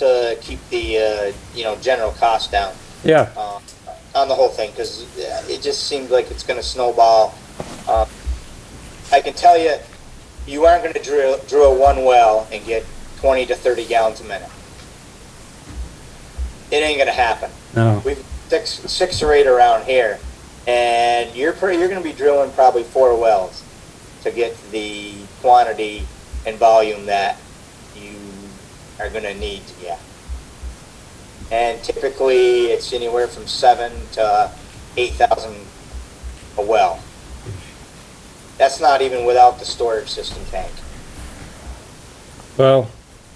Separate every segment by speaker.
Speaker 1: to keep the uh, you know general cost down
Speaker 2: Yeah,
Speaker 1: uh, on the whole thing because it just seems like it's going to snowball. Uh, I can tell you, you aren't going to drill drill one well and get 20 to 30 gallons a minute. It ain't going to happen.
Speaker 2: no,
Speaker 1: We've six six or eight around here, and you're pretty, you're going to be drilling probably four wells to get the quantity and volume that you are going to need to get. And typically, it's anywhere from seven to eight thousand a well. That's not even without the storage system tank.
Speaker 2: well,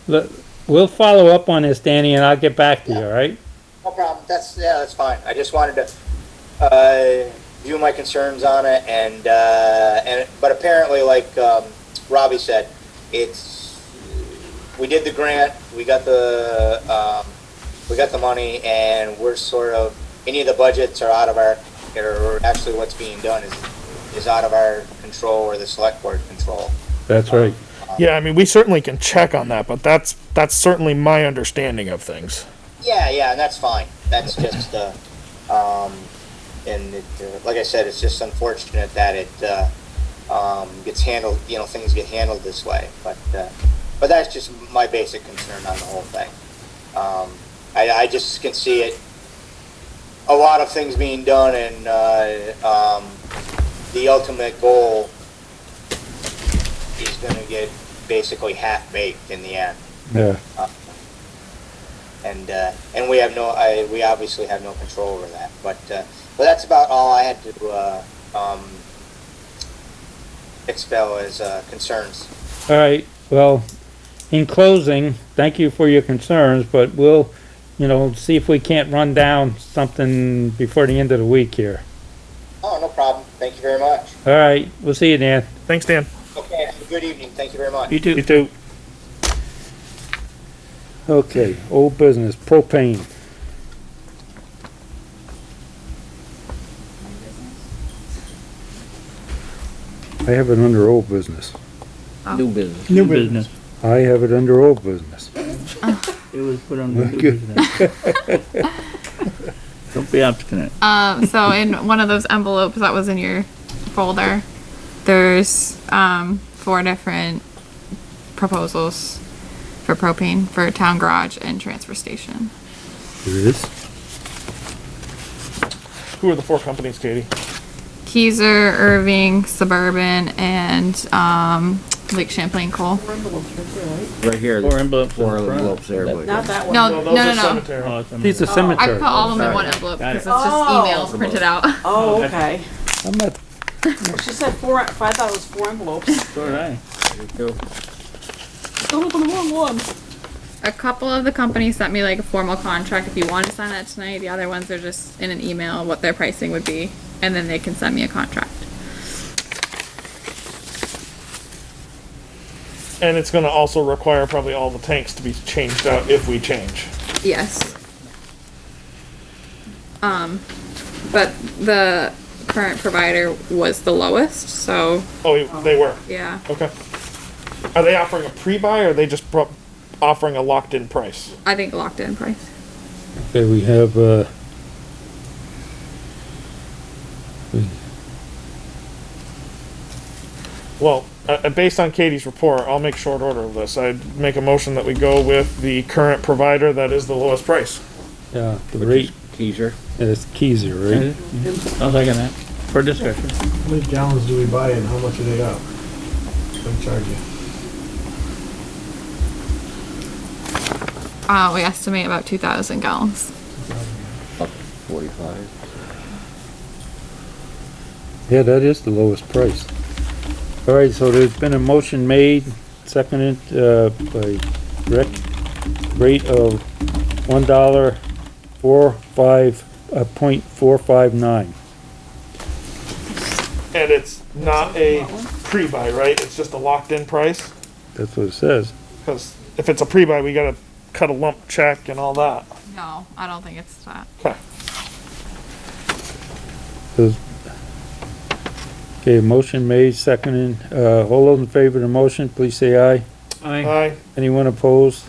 Speaker 2: le- we'll follow up on this, Danny, and I'll get back to you, all right?
Speaker 1: No problem. That's, yeah, that's fine. I just wanted to, uh, view my concerns on it and, uh, and, but apparently, like, um, Robbie said, it's, we did the grant, we got the, um, we got the money and we're sort of, any of the budgets are out of our, or actually what's being done is, is out of our control or the select board control.
Speaker 2: That's right.
Speaker 3: Yeah, I mean, we certainly can check on that, but that's that's certainly my understanding of things.
Speaker 1: Yeah, yeah, and that's fine. That's just, uh, um, and it, uh, like I said, it's just unfortunate that it, uh, um, gets handled, you know, things get handled this way, but, uh, but that's just my basic concern on the whole thing. Um, I, I just can see it, a lot of things being done and, uh, um, the ultimate goal is gonna get basically half-baked in the end
Speaker 2: Yeah,
Speaker 1: and uh, and we have no, I, we obviously have no control over that. But uh, but that's about all I had to uh, um, expel as uh, concerns.
Speaker 2: all right, well, in closing, thank you for your concerns, but we'll, you know, see if we can't run down something before the end of the week here.
Speaker 1: Oh, no problem. Thank you very much.
Speaker 2: All right, we'll see you, Dan.
Speaker 3: Thanks, Dan.
Speaker 1: Okay. Have a good evening. Thank you very much.
Speaker 2: too.
Speaker 3: You too.
Speaker 2: Okay, old business, propane.
Speaker 4: I have it under old business.
Speaker 5: New business.
Speaker 6: New business.
Speaker 4: I have it under old business.
Speaker 6: It was put on the new business. Don't be obstinate.
Speaker 5: Um, so in one of those envelopes that was in your folder, there's um, four different proposals for propane for town garage and transfer station.
Speaker 4: There it is.
Speaker 3: Who are the four companies, Katie?
Speaker 5: Keyser, Irving, Suburban, and um, Lake Champlain Coal. Right here.
Speaker 6: Four envelopes. in
Speaker 5: Four
Speaker 6: front.
Speaker 5: envelopes there,
Speaker 6: That-
Speaker 5: but-
Speaker 7: Not that one.
Speaker 5: No, no, no, no.
Speaker 6: Oh, it's on
Speaker 2: He's a
Speaker 6: the-
Speaker 5: I put
Speaker 2: cemetery.
Speaker 5: all of them in
Speaker 6: Sorry.
Speaker 5: one envelope
Speaker 6: Got
Speaker 5: because
Speaker 6: it.
Speaker 5: it's just
Speaker 7: Oh.
Speaker 5: emails printed out.
Speaker 7: Oh, okay.
Speaker 2: I'm not,
Speaker 7: She said four, I thought it was four envelopes.
Speaker 6: So did I.
Speaker 7: Don't open the wrong one.
Speaker 5: A couple of the companies sent me like a formal contract if you want to sign that tonight. The other ones are just in an email what their pricing would be, and then they can send me a contract.
Speaker 3: And it's going to also require probably all the tanks to be changed out if we change.
Speaker 5: Yes. Um, but the current provider was the lowest, so
Speaker 3: Oh, you- they were.
Speaker 5: yeah.
Speaker 3: Okay. Are they offering a pre-buy or are they just pro- offering a locked-in price?
Speaker 5: I think locked in price.
Speaker 4: Okay, we have, uh,
Speaker 3: Well, uh, uh, based on Katie's report, I'll make short order of this. I'd make a motion that we go with the current provider that is the lowest price.
Speaker 2: yeah, the rate
Speaker 6: Teaser.
Speaker 2: is Keyser, right?
Speaker 6: I'll second that. For discussion.
Speaker 8: How many gallons do we buy and how much are they up? They charge you.
Speaker 5: Uh, we estimate about two thousand gallons.
Speaker 6: Forty-five.
Speaker 4: yeah, that is the lowest price.
Speaker 2: All right, so there's been a motion made, seconded, uh, by Rick, rate of one dollar, four, five, uh, point four five nine.
Speaker 3: And it's not a pre-buy, right? It's just a locked-in price?
Speaker 2: That's what it says.
Speaker 3: Because if it's a pre-buy, we gotta cut a lump check and all that.
Speaker 5: No, I don't think it's that.
Speaker 3: Okay.
Speaker 2: Says- Okay, motion made, seconded, uh, all those in favor of the motion, please say aye.
Speaker 3: Aye.
Speaker 2: Anyone opposed?